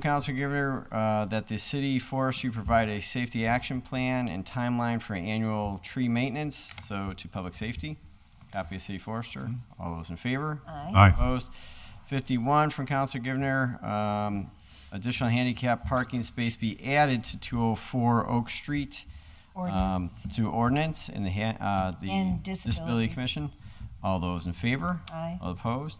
Council Giver, uh, that the city forestry provide a safety action plan and timeline for annual tree maintenance, so to public safety. Copy of city forester. All those in favor? Aye. Aye. Opposed? Fifty-one from Council Givner, um, additional handicap parking space be added to two oh four Oak Street. um, Ordinance. To ordinance and the, han- uh, the And Disability disabilities. Commission. All those in favor? Aye. All opposed?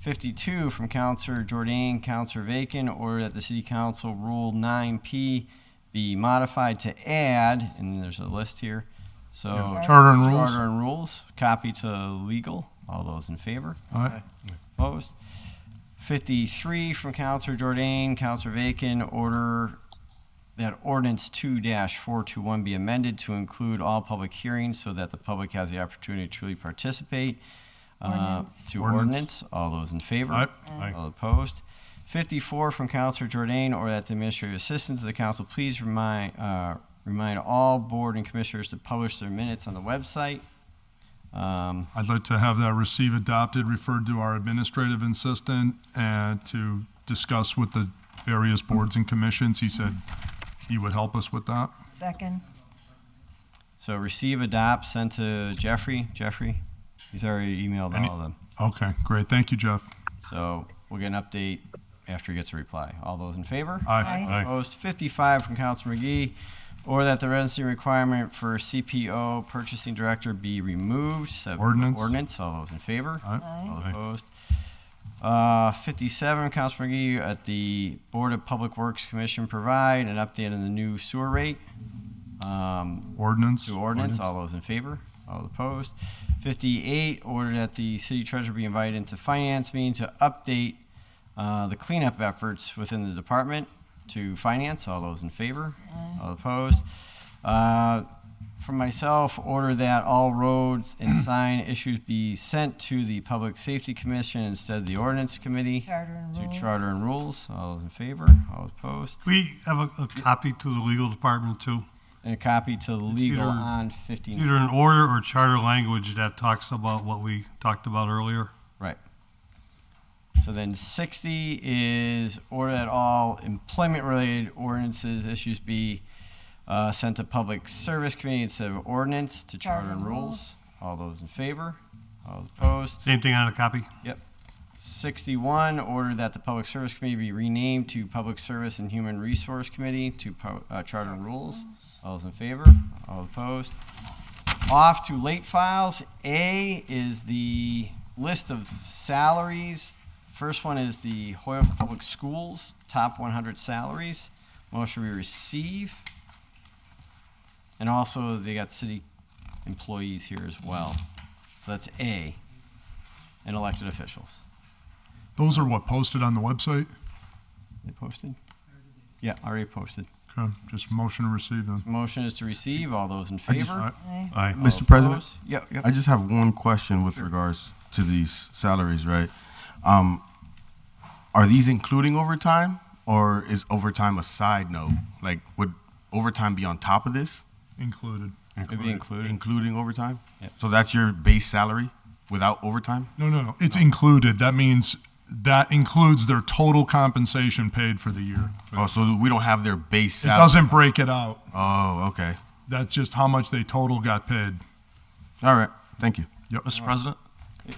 Fifty-two from Counselor Jordan, Counselor Vacan, order that the City Council Rule nine P be modified to add, and there's a list here, so. Yeah, charter and rules. Charter and rules, copy to legal. All those in favor? Aye. Opposed? Fifty-three from Counselor Jordan, Counselor Vacan, order that ordinance two four-two-one be amended to include all public hearings so that the public has the opportunity to truly participate. uh, Ordinance. To Ordinance. ordinance. All those in favor? Aye. Aye. All opposed? Fifty-four from Counselor Jordan, or that the administrative assistant to the council please remind, uh, remind all board and commissioners to publish their minutes on the website. Um, I'd like to have that receive adopted, referred to our administrative assistant, and to discuss with the various boards and commissions. He said he would help us with that. Second. So receive, adopt, send to Jeffrey. Jeffrey, he's already emailed Any- all of them. Okay, great. Thank you, Jeff. So we'll get an update after he gets a reply. All those in favor? Aye. Opposed 55 from Council McGee, or that the residency requirement for CPO purchasing director be removed. So- Ordinance. Ordinance, all those in favor? Aye. All Aye. opposed. Uh, 57, Council McGee, at the Board of Public Works Commission provide an update on the new sewer rate. Um, Ordinance. to ordinance, all those in favor, all opposed. Fifty-eight, order that the city treasurer be invited into finance meeting to update uh, the cleanup efforts within the department to finance, all those in favor, all opposed. Uh, From myself, order that all roads and sign issues be sent to the Public Safety Commission instead of the Ordinance Committee Charter and to rules. charter and rules, all those in favor, all opposed. We have a, a copy to the legal department too. And a copy to legal either- on It's fifty-nine. either an order or charter language that talks about what we talked about earlier. Right. So then sixty is order that all employment-related ordinances, issues be uh, sent to public service committee instead of ordinance to charter and rules. All those in favor? All opposed? Same thing on a copy. Yep. Sixty-one, order that the public service committee be renamed to Public Service and Human Resource Committee to po- uh, charter and rules. All those in favor? All opposed? Off to late files. A is the list of salaries. First one is the Hoyle Public Schools, top one hundred salaries. Motion we receive. And also, they got city employees here as well. So that's A, and elected officials. Those are what posted on the website? They posted? Yeah, already posted. Okay, just motion to receive them. Motion is to receive. All those in I just- favor? Aye. Aye. Oh, Mr. President, Opposed? Yep, I yep. just have one question with regards to these salaries, right? Um, are these including overtime or is overtime a side note? Like, would overtime be on top of this, Included. It'd be included. including overtime? Yep. So that's your base salary without overtime? No, no, no. It's included. That means that includes their total compensation paid for the year. Oh, so we don't have their base It salary? doesn't break it out. Oh, okay. That's just how much they total got paid. All right. Thank you. Mr. President,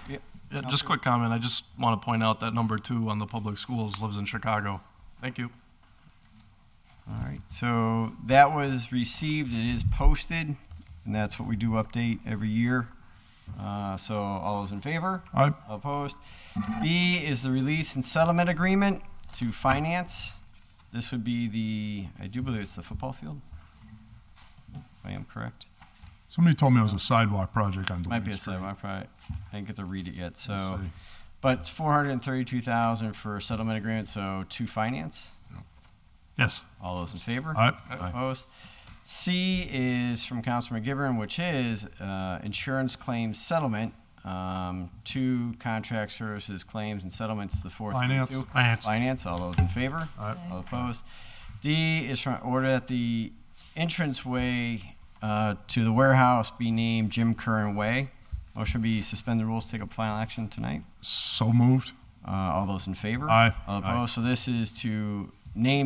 Yep. yeah, just quick comment. I just want to point out that number two on the public schools lives in Chicago. Thank you. All right. So that was received. It is posted, and that's what we do update every year. Uh, so all those in favor? Aye. Opposed? B is the release and settlement agreement to finance. This would be the, I do believe it's the football field. If I am correct. Somebody told me it was a sidewalk project on Dwayne Might be a Street. seven. I probably I didn't get to read it yet. So, Let's see. but it's four hundred and thirty-two thousand for settlement agreement. So to finance. Yes. All those in favor? Aye. Opposed. C is from Councilman Givern, which is uh, insurance claims settlement. Um, two contract services claims and settlements. The fourth. one, Finance. too. Finance. Finance. All those in favor? Aye. All opposed. D is from order that the entranceway uh, to the warehouse be named Jim Curran Way. Motion be suspend the rules, take up final action tonight. So moved. Uh, all those in favor? Aye. All Aye. opposed. So this is to name